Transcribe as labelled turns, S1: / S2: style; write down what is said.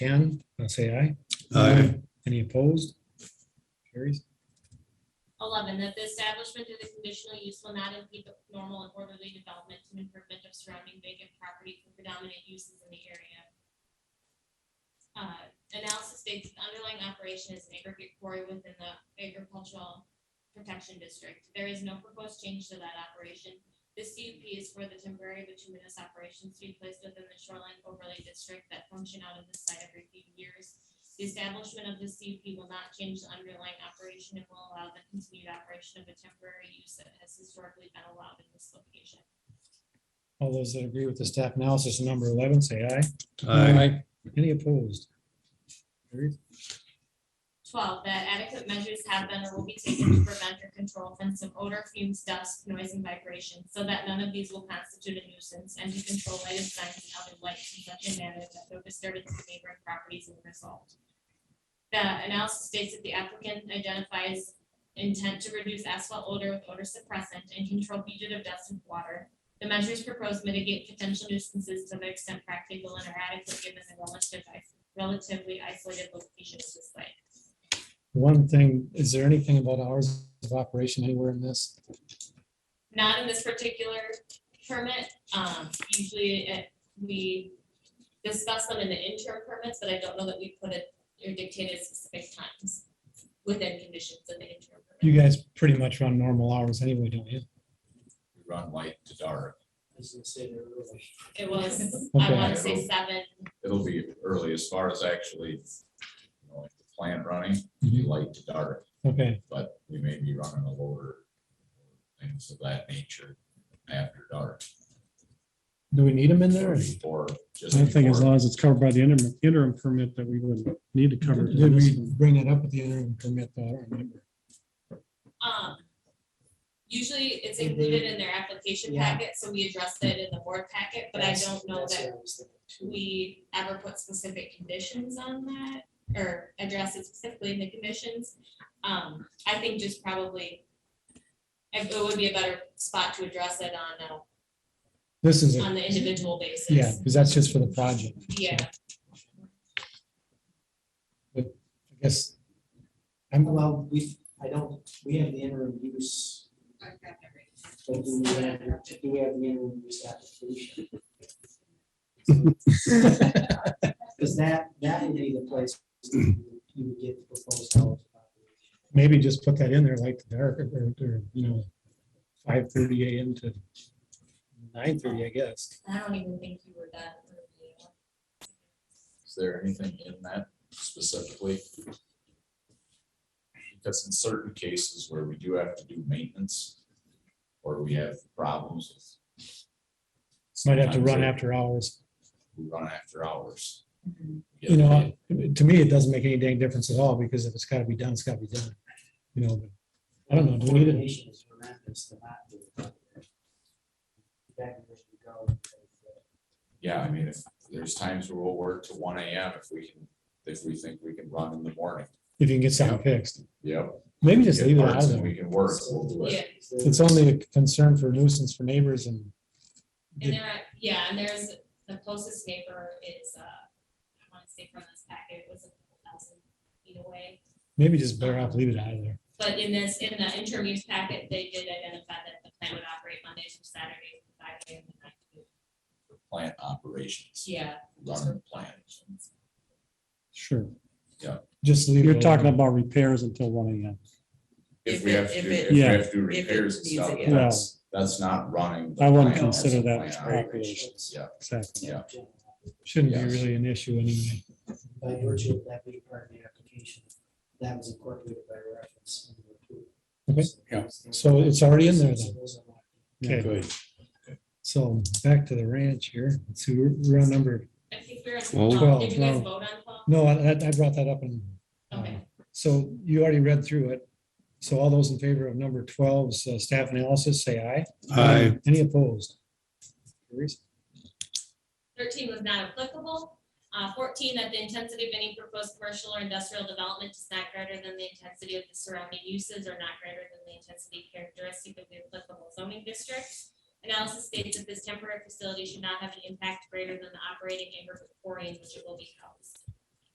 S1: Can, I'll say aye.
S2: Aye.
S1: Any opposed? Carries.
S3: Eleven, that the establishment of the conditional use will not impede the normal and orderly development and improvement of surrounding vacant property for predominant uses in the area. Uh, analysis states the underlying operation is an aggregate quarry within the agricultural protection district. There is no proposed change to that operation. The CUP is for the temporary bituminous operations to be placed within the shoreline overlay district that function out of the site every few years. The establishment of the CUP will not change the underlying operation and will allow the continued operation of a temporary use that has historically been allowed in this location.
S1: All those that agree with the staff analysis of number eleven, say aye.
S2: Aye.
S1: Any opposed? Carries.
S3: Twelve, that adequate measures have been or will be taken to prevent or control offensive odor, fumes, dust, noise, and vibration, so that none of these will constitute a nuisance, and to control lighted signs and other lights in such a manner that no disturbance to neighboring properties will result. The analysis states that the applicant identifies intent to reduce asphalt odor with odor suppressant and control fugitive dust and water. The measures proposed mitigate potential nuisances to the extent practical and are adequate given the relative is- relatively isolated location of the site.
S1: One thing, is there anything about hours of operation anywhere in this?
S3: not in this particular permit. Um, usually it, we discuss them in the interim permits, but I don't know that we put it or dictated specific times within conditions of the interim
S1: You
S3: permit.
S1: guys pretty much run normal hours anyway, don't you?
S4: We run light to dark.
S3: It was, I
S1: Okay.
S3: want to say seven,
S4: It'll be early as far as actually, you know, like the plant running, it'll
S1: Mm-hmm.
S4: be light to dark,
S1: Okay,
S4: but we may be running a lower things of that nature after dark.
S1: do we need them in there?
S4: or
S1: or-
S4: before, just
S5: I think as
S4: before.
S5: long as it's covered by the interim, interim permit that we would need to cover. it in
S1: Did
S5: this
S1: we
S5: one.
S1: bring it up at the interim permit? though? I don't remember.
S3: um. Usually it's included in their application
S6: Yeah.
S3: packet, so we address it in the board packet, but I
S6: That's-
S3: don't know
S6: that's
S3: that
S6: what I was thinking too.
S3: we ever put specific conditions on that or address it specifically in the conditions. Um, I think just probably it it would be a better spot to address it on, a-
S1: This is,
S3: on
S1: a
S3: the individual basis.
S1: yeah, because that's just for the project.
S3: Yeah,
S1: I guess. I'm,
S6: Well, we, I don't, we have the interim use, but do we have, do we have the interim use application? Because that, that would be the place you would get the proposed hours. of operation.
S1: maybe just put that in there like the dark or, or, you know, five thirty AM to nine thirty, I guess.
S3: I don't even think you were that. early.
S4: Is there anything in that specifically? Because in certain cases where we do have to do maintenance, or we have problems. with-
S1: Might have to run
S4: Sometimes
S1: after hours.
S4: We run after hours.
S1: You know, to me, it doesn't make any dang difference at all because if it's gotta be done, it's gotta be done. You know, but I don't know, do we need it?
S6: Coordination is horrendous to not do it. Back and forth we go.
S4: Yeah, I mean, if, there's times where we'll work to one AM if we can, if we think we can run in the morning.
S1: if you can get something fixed,
S4: Yep.
S1: maybe just
S4: Get
S1: leave it out
S4: parts
S1: of
S4: and
S1: there.
S4: We can work, we'll do
S3: Yeah,
S4: it.
S1: It's only a concern for nuisance for neighbors and
S3: and there, are- yeah, and there's, the closest neighbor is, uh, I want to say from this packet, it was a couple thousand feet away.
S1: maybe just better off leave it out of there.
S3: But in this, in the interim use packet, they did identify that the plant would operate Mondays through Saturdays, from five AM to nine PM.
S4: Plant operations,
S3: Yeah.
S4: running plant.
S5: Sure.
S1: Just leave. it
S5: You're
S1: alone.
S5: talking about repairs until one AM.
S4: If
S7: If
S4: we
S7: it-
S4: have to
S7: if
S4: do,
S7: it-
S4: if we
S5: Yeah.
S4: have to do
S7: if it
S4: repairs and
S7: needs it,
S4: stuff,
S7: yeah.
S4: that's, that's not running. the
S5: I wouldn't
S4: plant, that's
S5: consider
S4: the
S5: that
S4: plant
S5: operation.
S4: operations. Yeah,
S5: Exactly.
S4: yeah.
S1: Shouldn't be
S4: Yes.
S1: really an issue anyway.
S6: By virtue of that being part of the application, that was incorporated by reference. when we
S1: Okay.
S6: approved.
S4: Yeah.
S1: So it's already in there then.
S6: Those are not-
S5: Yeah.
S1: Okay, so back to the ranch here. Let's see, we're we're on number,
S3: I think we're,
S2: Twelve.
S3: um, did you guys
S1: Twelve.
S3: vote on twelve?
S1: no, I, I brought that up and.
S3: Okay.
S1: So you already read through it. So all those in favor of number 12's uh, staff analysis, say aye.
S2: Aye.
S1: Any opposed? Carries.
S3: Thirteen was not applicable. Uh, fourteen, that the intensity of any proposed commercial or industrial development is not greater than the intensity of the surrounding uses or not greater than the intensity characteristic of the applicable zoning district. Analysis states that this temporary facility should not have an impact greater than the operating aggregate quarry in which it will be housed.